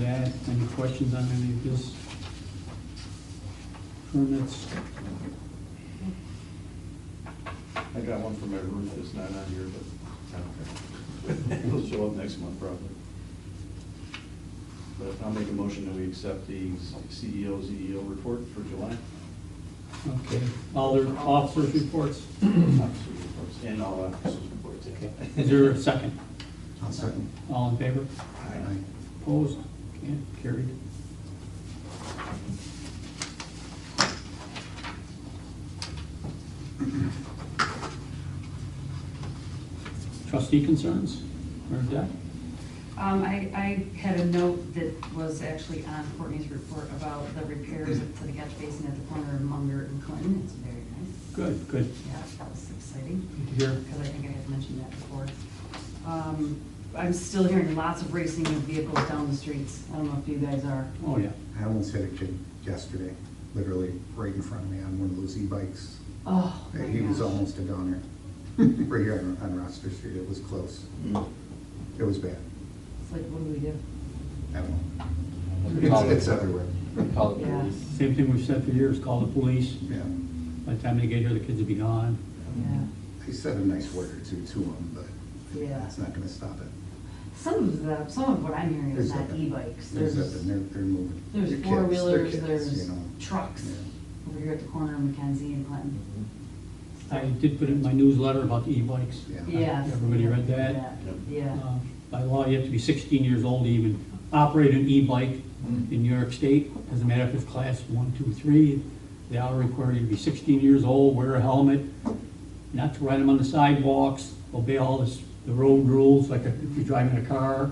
that. Any questions on any of this? Permits? I got one for my roof that's not on here, but I don't care. It'll show up next month probably. But I'll make a motion that we accept the E CEO, CEO report for July. Okay. All their officers' reports? Officers' reports, And all officers' reports. yeah. Is there a second? I'll second. All in favor? Aye. Opposed? Okay, carried. Trustee concerns or debt? Um, I, I had a note that was actually on Courtney's report about the repairs to the catch basin at the corner of Munger and Clinton. It's very nice. Good, good. Yeah, that was exciting. Good to hear. Because I think I had mentioned that before. Um, I'm still hearing lots of racing of vehicles down the streets. I don't know if you guys are. Oh, yeah. I almost hit a kid yesterday, literally right in front of me on one of those e-bikes. Oh, my He was gosh. almost a goner. Right here on- on Rochester Street, it was close. Mm. It was bad. It's like, what do we do? I don't know. Call It's it's the- everywhere. Call the Yeah. police. Same thing we've said for years, call the police. Yeah. By the time they get here, the kids will be gone. Yeah. I said a nice word or two to him, but Yeah. it's not gonna stop it. Some of the, some of what I'm hearing is There's not nothing. e-bikes. There's nothing, they're, they're moving. They're There's kids, they're four-wheelers, kids, you there's know. trucks Yeah. over here at the corner of Mackenzie and Clinton. I did put in my newsletter about the e-bikes. Yeah. Yes. Everybody read that? Yeah. Uh, By law, you have to be 16 years old to even operate an e-bike in New York State. Doesn't matter if it's class one, two, three, they all require you to be 16 years old, wear a helmet, not to ride them on the sidewalks, obey all this- the road rules, like if you're driving a car.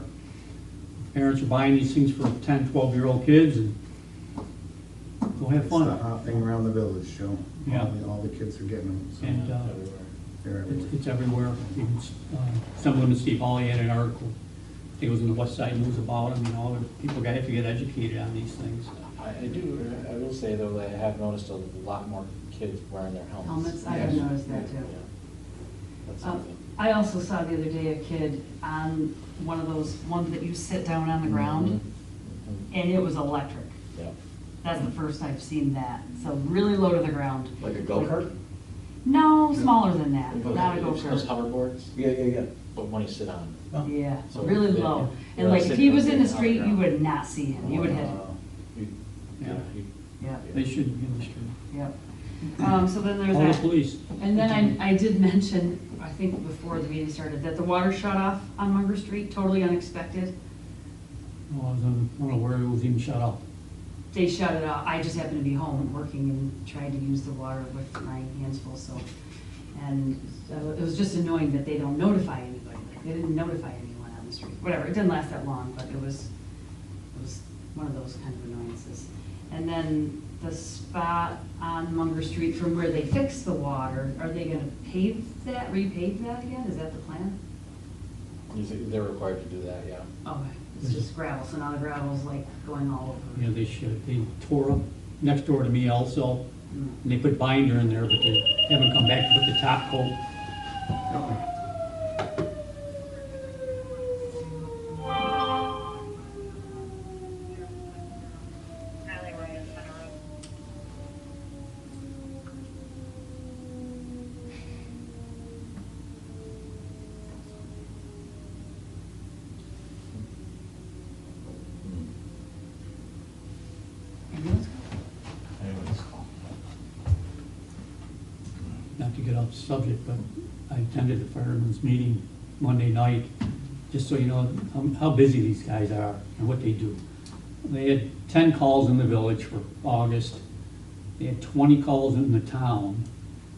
Parents are buying these things for 10, 12-year-old kids, and go have It's the fun. hot thing around the village, Joe. Yeah. All the- All the kids are getting them, so And uh, they're everywhere. It's it's everywhere. Even, uh, Someone in Steve Hawley had an article, I think it was in the West Side News about them, you know, and people got- have to get educated on these things. I, I do, I will say though, that I have noticed a lot more kids wearing their helmets. Helmets, I have noticed that too. Yeah. That's Um, something. I also saw the other day a kid on one of those, ones that you sit down on the ground, Mm-hmm. Mm-hmm. Mhm. and it was electric. Yeah. That's the first I've seen that, so really low to the ground. Like a go-kart? No, smaller than that, Okay. not a Those go-kart. hoverboards, Yeah, yeah, yeah. but when you sit on. Yeah, So really they- low. they're And like, if sitting he on was in the ground. street, you would not see him, you would hit him. Uh, You- Yeah. Yeah, you- Yeah, They shouldn't be in the street. yep. Um, so then there's Call the that. police. And then I, I did mention, I think before the meeting started, that the water shut off on Munger Street, totally unexpected. Oh, I was on- I don't know where it was even shut off. They shut it off, I just happened to be home and working and tried to use the water with my hands full, so. And so it was just annoying that they don't notify anybody, like, they didn't notify anyone on the street, whatever, it didn't last that long, but it was, it was one of those kind of annoyances. And then the spot on Munger Street from where they fixed the water, are they gonna pave that, repave that again, is that the plan? You see, They're required to do that, yeah. Okay, it's just gravel, so now the gravel's like going all You over. know, they should, they tore up next door to me also, Mm. and they put binder in there, but they haven't come back to put the top coat. alleyway in front of room. And those- not to get off the subject, but I attended the firemen's meeting Monday night, just so you know how- how busy these guys are and what they do. They had ten calls in the village for August, they had twenty calls in the town,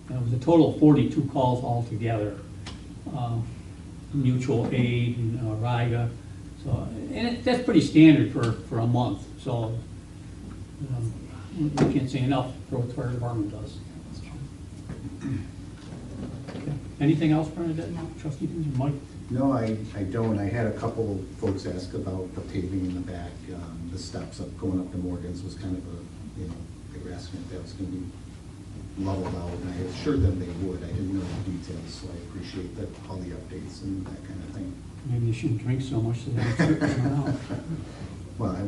and it was a total of forty-two calls altogether. uh, Mutual aid and uh, RIGA, so, and it- that's pretty standard for, for a month, so um, we we can't say enough for what the fire department does. Anything else, Bernadette? No. Trustee Kinzer, Mike? No, I, I don't. I had a couple folks ask about the paving in the back, um, the steps up, going up to Morgan's was kind of a, you know, they were asking if that was gonna be leveled out, and I assured them they would. I didn't know the details, so I appreciate that, all the updates and that kind of thing. Maybe you shouldn't drink so much so that it's dripping out. Well, I